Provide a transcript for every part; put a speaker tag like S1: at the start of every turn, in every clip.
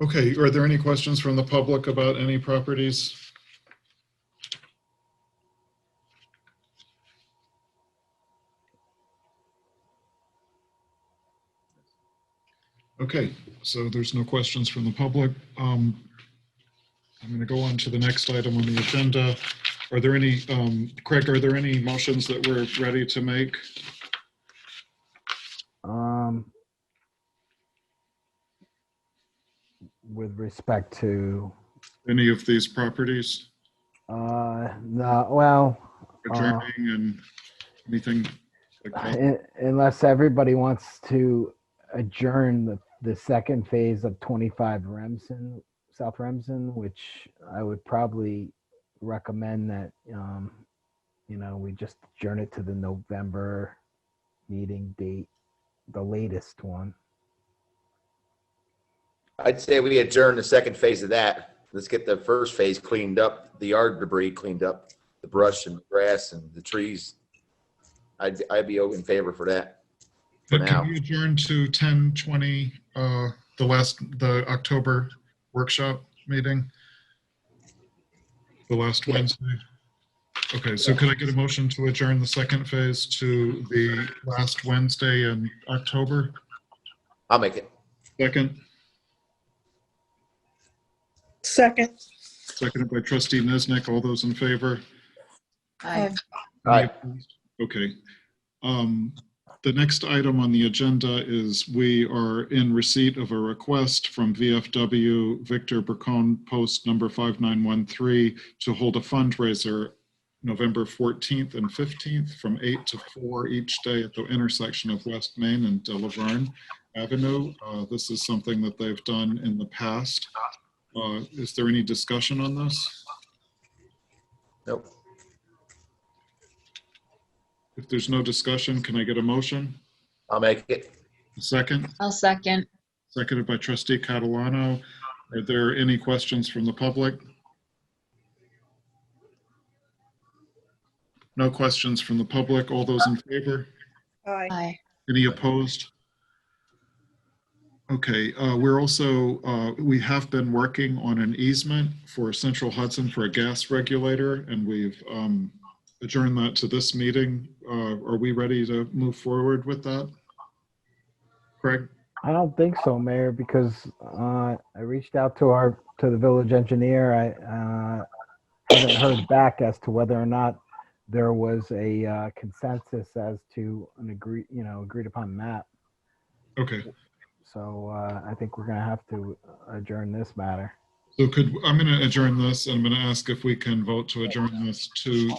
S1: Okay, are there any questions from the public about any properties? Okay, so there's no questions from the public. Um, I'm going to go on to the next item on the agenda. Are there any, um, Craig, are there any motions that we're ready to make?
S2: Um, with respect to,
S1: Any of these properties?
S2: uh, no, well, Uh.
S1: Adjourning and anything? like that?
S2: un- unless everybody wants to adjourn the, the second phase of 25 Remsen, South Remsen, which I would probably recommend that, um, you know, we just adjourn it to the November meeting date, the latest one.
S3: I'd say we adjourn the second phase of that. Let's get the first phase cleaned up, the yard debris cleaned up, the brush and grass and the trees. I'd, I'd be in favor for that. for
S1: But
S3: now.
S1: can we adjourn to ten twenty, uh, the last, the October workshop meeting? The last
S3: Yeah.
S1: Wednesday? Okay, so could I get a motion to adjourn the second phase to the last Wednesday in October?
S3: I'll make it.
S1: Second,
S4: Second.
S1: seconded by trustee Niznik. All those in favor?
S5: Aye.
S3: Aye.
S1: Okay. Um, The next item on the agenda is we are in receipt of a request from VFW Victor Burcon, post number 5913, to hold a fundraiser November 14th and 15th from 8 to 4 each day at the intersection of West Main and De Laverne Avenue. Uh, This is something that they've done in the past. Uh, Is there any discussion on this?
S3: Nope.
S1: If there's no discussion, can I get a motion?
S3: I'll make it.
S1: A second?
S5: I'll second.
S1: Seconded by trustee Catalano. Are there any questions from the public? No questions from the public. All those in favor?
S4: Aye.
S5: Aye.
S1: Any opposed? Okay, uh, we're also, uh, we have been working on an easement for Central Hudson for a gas regulator, and we've um, adjourned that to this meeting. Uh, Are we ready to move forward with that? Craig?
S2: I don't think so, Mayor, because uh, I reached out to our, to the village engineer. I uh, haven't heard back as to whether or not there was a uh, consensus as to an agree, you know, agreed upon map.
S1: Okay.
S2: So uh, I think we're going to have to adjourn this matter.
S1: So could, I'm going to adjourn this, and I'm going to ask if we can vote to adjourn this to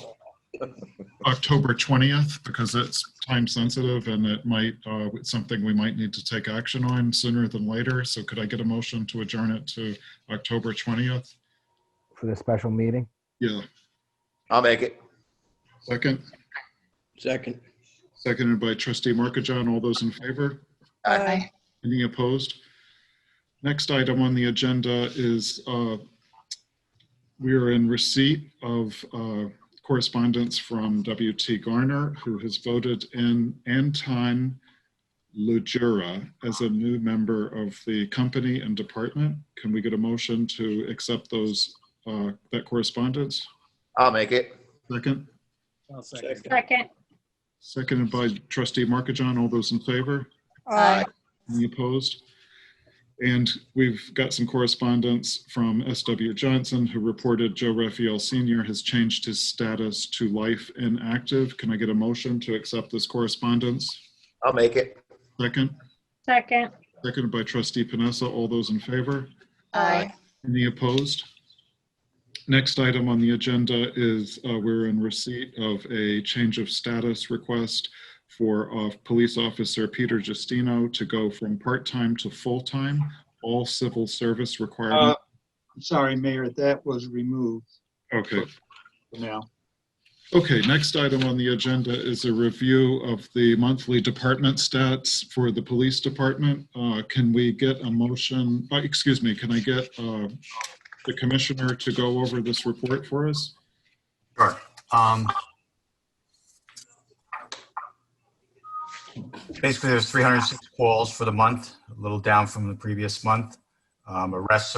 S1: October 20th, because it's time sensitive and it might, uh, it's something we might need to take action on sooner than later. So could I get a motion to adjourn it to October 20th?
S2: For the special meeting?
S1: Yeah,
S3: I'll make it.
S1: second,
S6: Second.
S1: seconded by trustee Markajon. All those in favor?
S3: Aye.
S5: Aye.
S1: Any opposed? Next item on the agenda is uh, we are in receipt of uh, correspondence from W.T. Garner, who has voted in Anton Lujura as a new member of the company and department. Can we get a motion to accept those, uh, that correspondence?
S3: I'll make it.
S1: Second,
S6: Second.
S5: Second.
S1: seconded by trustee Markajon. All those in favor?
S4: Aye.
S1: Any opposed? And we've got some correspondence from S.W. Johnson, who reported Joe Raphael Sr. has changed his status to life inactive. Can I get a motion to accept this correspondence?
S3: I'll make it.
S1: Second,
S5: Second.
S1: seconded by trustee Panessa. All those in favor?
S5: Aye.
S1: Any opposed? Next item on the agenda is uh, we're in receipt of a change of status request for uh, Police Officer Peter Justino to go from part-time to full-time, all civil service requirement.
S7: I'm Sorry, Mayor, that was removed
S1: Okay.
S7: for now.
S1: Okay, next item on the agenda is a review of the monthly department stats for the police department. Uh, Can we get a motion, uh, excuse me, can I get uh, the commissioner to go over this report for us?
S8: Sure. Um, Basically, there's 306 calls for the month, a little down from the previous month. um, arrests